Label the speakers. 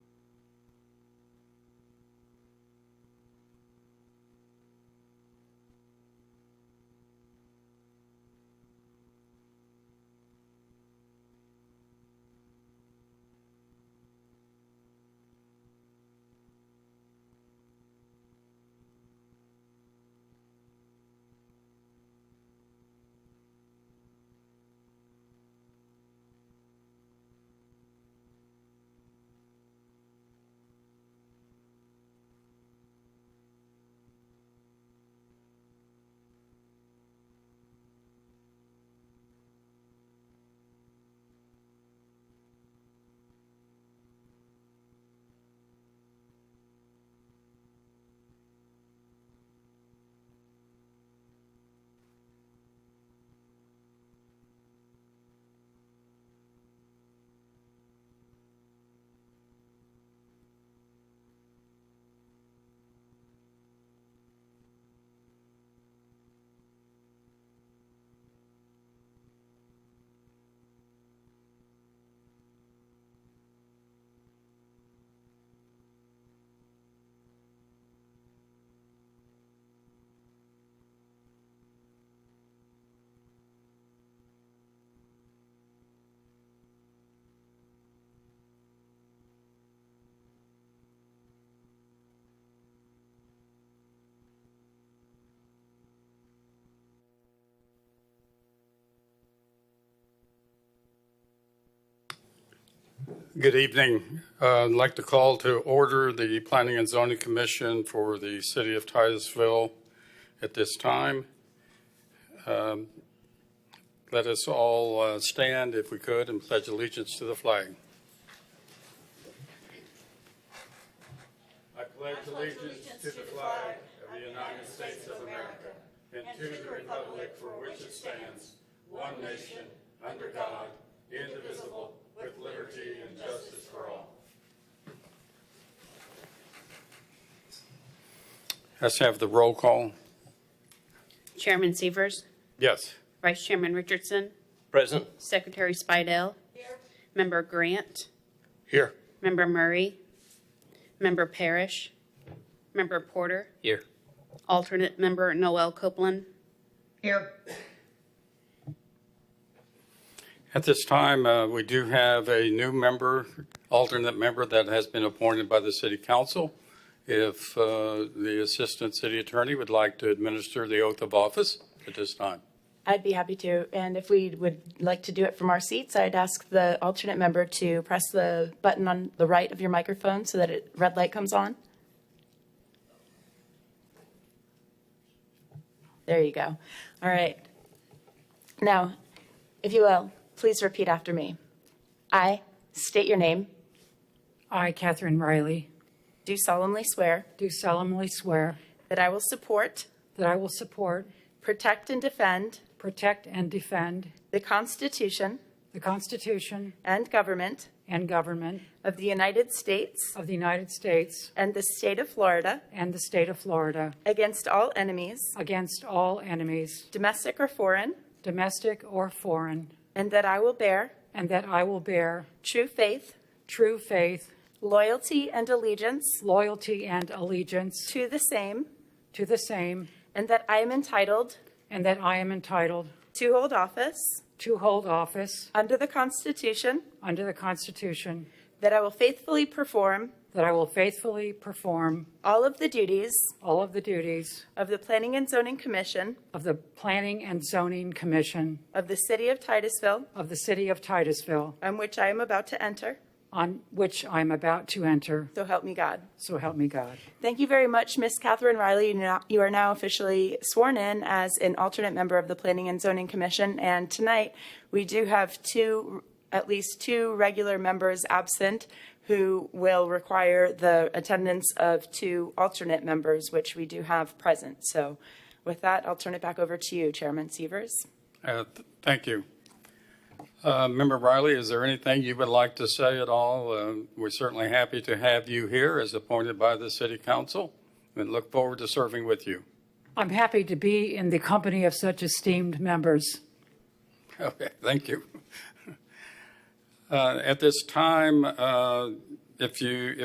Speaker 1: Good evening. Uh, I'd like to call to order the Planning and Zoning Commission for the City of Titusville at this time. Um, Let us all uh, stand, if we could, and pledge allegiance to the flag. I pledge allegiance to the flag of the United States of America and to the republic for which it stands, one nation, under God, indivisible, with liberty and justice for all. Let's have the roll call.
Speaker 2: Chairman Severs,
Speaker 1: Yes.
Speaker 2: Vice Chairman Richardson,
Speaker 3: Present.
Speaker 2: Secretary Spidel, Member Grant,
Speaker 1: Here.
Speaker 2: Member Murray, Member Parrish, Member Porter,
Speaker 3: Here.
Speaker 2: alternate member Noel Copeland.
Speaker 4: Here.
Speaker 1: At this time, uh, we do have a new member, alternate member that has been appointed by the city council. If uh, the assistant city attorney would like to administer the oath of office at this time.
Speaker 5: I'd be happy to. And if we would like to do it from our seats, I'd ask the alternate member to press the button on the right of your microphone so that it, red light comes on. There you go. All right. Now, if you will, please repeat after me. I state your name,
Speaker 6: I, Catherine Riley,
Speaker 5: do solemnly swear
Speaker 6: do solemnly swear
Speaker 5: that I will support,
Speaker 6: that I will support,
Speaker 5: protect, and defend
Speaker 6: protect, and defend
Speaker 5: the Constitution
Speaker 6: the Constitution
Speaker 5: and government
Speaker 6: and government
Speaker 5: of the United States
Speaker 6: of the United States
Speaker 5: and the state of Florida.
Speaker 6: and the state of Florida
Speaker 5: against all enemies,
Speaker 6: against all enemies,
Speaker 5: domestic or foreign,
Speaker 6: domestic or foreign,
Speaker 5: and that I will bear
Speaker 6: and that I will bear
Speaker 5: true faith,
Speaker 6: true faith,
Speaker 5: loyalty, and allegiance
Speaker 6: loyalty, and allegiance
Speaker 5: to the same,
Speaker 6: to the same,
Speaker 5: and that I am entitled
Speaker 6: and that I am entitled
Speaker 5: to hold office
Speaker 6: to hold office
Speaker 5: under the Constitution,
Speaker 6: under the Constitution,
Speaker 5: that I will faithfully perform
Speaker 6: that I will faithfully perform
Speaker 5: all of the duties
Speaker 6: all of the duties
Speaker 5: of the Planning and Zoning Commission
Speaker 6: of the Planning and Zoning Commission
Speaker 5: of the City of Titusville,
Speaker 6: of the city of Titusville,
Speaker 5: on which I am about to enter,
Speaker 6: on which I am about to enter,
Speaker 5: so help me God.
Speaker 6: so help me God.
Speaker 5: Thank you very much, Miss Catherine Riley. You now- You are now officially sworn in as an alternate member of the Planning and Zoning Commission. And tonight, we do have two, at least two regular members absent who will require the attendance of two alternate members, which we do have present. So with that, I'll turn it back over to you, Chairman Severs.
Speaker 1: Uh, th- Thank you. Uh, Member Riley, is there anything you would like to say at all? Uh, We're certainly happy to have you here as appointed by the city council and look forward to serving with you.
Speaker 6: I'm happy to be in the company of such esteemed members.
Speaker 1: Okay, thank you. Uh, At this time, uh, if you,